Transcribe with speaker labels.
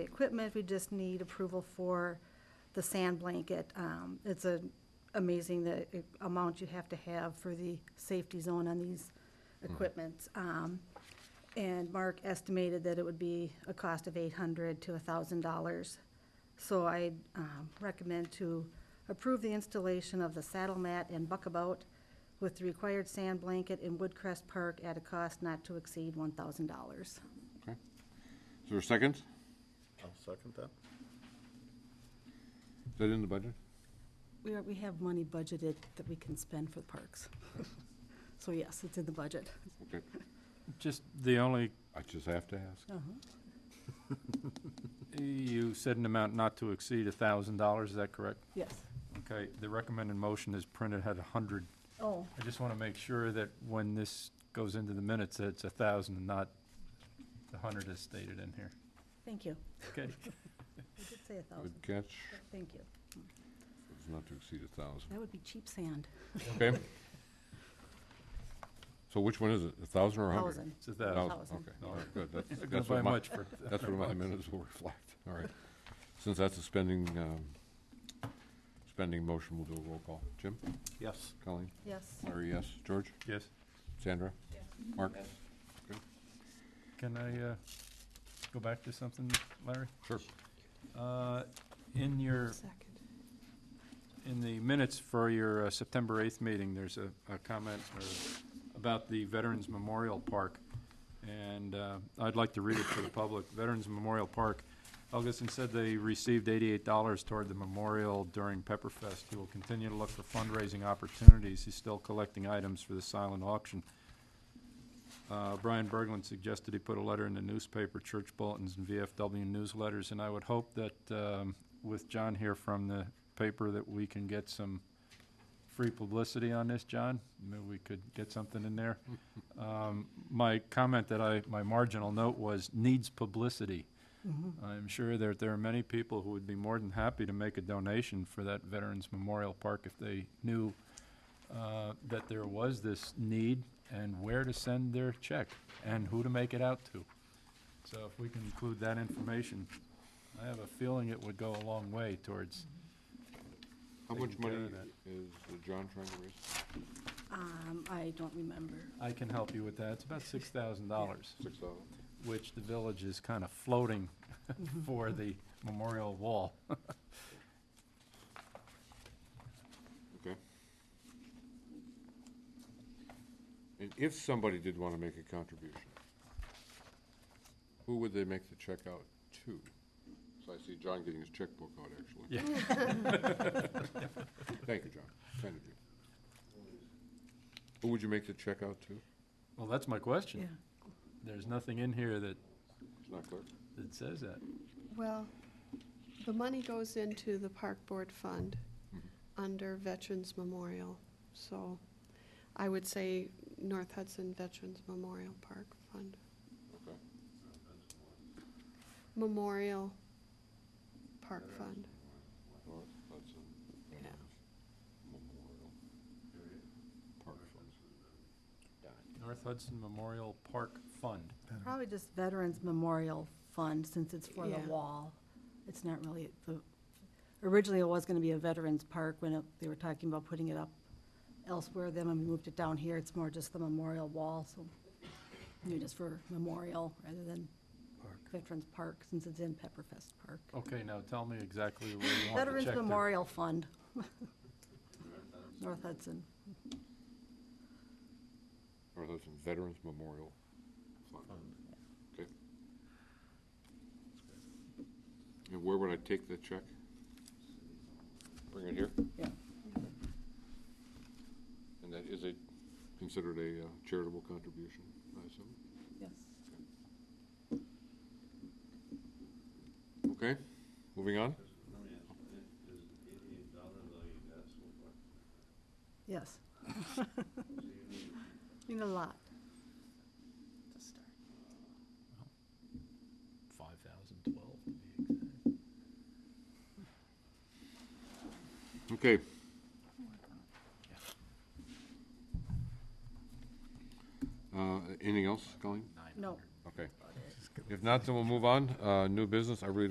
Speaker 1: the equipment, we just need approval for the sand blanket. Um, It's a amazing the amount you have to have for the safety zone on these equipments. Um, And Mark estimated that it would be a cost of eight hundred to a thousand dollars. So I um, recommend to approve the installation of the saddle mat and buckabout with the required sand blanket in Woodcrest Park at a cost not to exceed one thousand dollars.
Speaker 2: Okay. Is there a second? Is
Speaker 3: I'll second that.
Speaker 2: that in the budget?
Speaker 1: We are, we have money budgeted that we can spend for the parks. So yes, it's in the budget.
Speaker 2: Okay.
Speaker 4: Just the only,
Speaker 2: I just have to ask.
Speaker 1: Uh-huh.
Speaker 4: you said an amount not to exceed a thousand dollars, is that correct?
Speaker 1: Yes.
Speaker 4: Okay, the recommended motion is printed at a hundred.
Speaker 1: Oh,
Speaker 4: I just want to make sure that when this goes into the minutes, that it's a thousand and not the hundred as stated in here.
Speaker 1: thank you.
Speaker 4: Okay,
Speaker 1: I did say a thousand,
Speaker 2: Good catch.
Speaker 1: but thank you.
Speaker 2: It's not to exceed a thousand.
Speaker 1: That would be cheap sand.
Speaker 2: Okay. So which one is it? A thousand or a hundred?
Speaker 1: Thousand.
Speaker 4: it's a thousand.
Speaker 1: Thousand.
Speaker 2: Okay,
Speaker 4: No.
Speaker 2: all right, good. That's-
Speaker 4: Not gonna
Speaker 2: That's what
Speaker 4: buy
Speaker 2: my,
Speaker 4: much for.
Speaker 2: that's what my minutes will reflect. All right. Since that's a spending, um, spending motion, we'll do a roll call. Jim?
Speaker 3: Yes.
Speaker 2: Colleen?
Speaker 1: Yes.
Speaker 2: Larry, yes. George?
Speaker 4: Yes,
Speaker 2: Sandra? Mark?
Speaker 4: can I, uh, go back to something, Larry?
Speaker 2: Sure.
Speaker 4: Uh, in your In the minutes for your uh, September 8th meeting, there's a, a comment or- about the Veterans Memorial Park, and uh, I'd like to read it to the public. Veterans Memorial Park, Helgeson said they received $88 toward the memorial during Pepperfest. He will continue to look for fundraising opportunities. He's still collecting items for the silent auction. Uh, Brian Berglund suggested he put a letter in the newspaper, church bulletins, and VFW newsletters, and I would hope that um, with John here from the paper that we can get some free publicity on this, John. Maybe we could get something in there. Um, My comment that I, my marginal note was needs publicity. I'm sure that there are many people who would be more than happy to make a donation for that Veterans Memorial Park if they knew uh, that there was this need and where to send their check and who to make it out to. So if we can include that information, I have a feeling it would go a long way towards,
Speaker 2: How
Speaker 4: Taking
Speaker 2: much
Speaker 4: care
Speaker 2: money
Speaker 4: of that.
Speaker 2: is uh, John trying to raise?
Speaker 1: Um, I don't remember.
Speaker 4: I can help you with that, it's about six thousand dollars,
Speaker 2: Six thousand?
Speaker 4: which the village is kind of floating
Speaker 1: Mm-hmm.
Speaker 4: for the memorial wall.
Speaker 2: Okay. And if somebody did want to make a contribution, who would they make the check out to? So I see John getting his checkbook out, actually.
Speaker 4: Yeah.
Speaker 1: Mm.
Speaker 2: Thank you, John. Kind of you. Who would you make the check out to?
Speaker 4: Well, that's my question. There's nothing in here that,
Speaker 2: It's not clear.
Speaker 4: that says that.
Speaker 5: Well, the money goes into the park board fund under Veterans Memorial. So I would say North Hudson Veterans Memorial Park Fund.
Speaker 2: Okay.
Speaker 5: Memorial Park Fund.
Speaker 2: North Hudson Veterans Memorial Park Fund.
Speaker 4: North Hudson Memorial Park Fund.
Speaker 1: Probably just Veterans Memorial Fund, since it's for the
Speaker 5: Yeah.
Speaker 1: wall. It's not really, the, originally it was gonna be a Veterans Park when it- they were talking about putting it up elsewhere, then when we moved it down here, it's more just the memorial wall, so you just for memorial rather than Veterans Park, since it's in Pepperfest Park.
Speaker 4: Okay, now tell me exactly where you want the check
Speaker 1: Veterans
Speaker 4: to
Speaker 1: Memorial Fund. North Hudson.
Speaker 2: North Hudson Veterans Memorial Fund. Okay. And where would I take the check? Bring it here?
Speaker 1: Yeah.
Speaker 2: And that, is it considered a uh, charitable contribution, I assume?
Speaker 1: Yes.
Speaker 2: Okay, moving on?
Speaker 1: Yes. You know, a lot.
Speaker 4: Five thousand twelve, to be exact.
Speaker 2: Okay. Uh, anything else, Colleen?
Speaker 1: No.
Speaker 2: Okay. If not, then we'll move on. Uh, new business, I really don't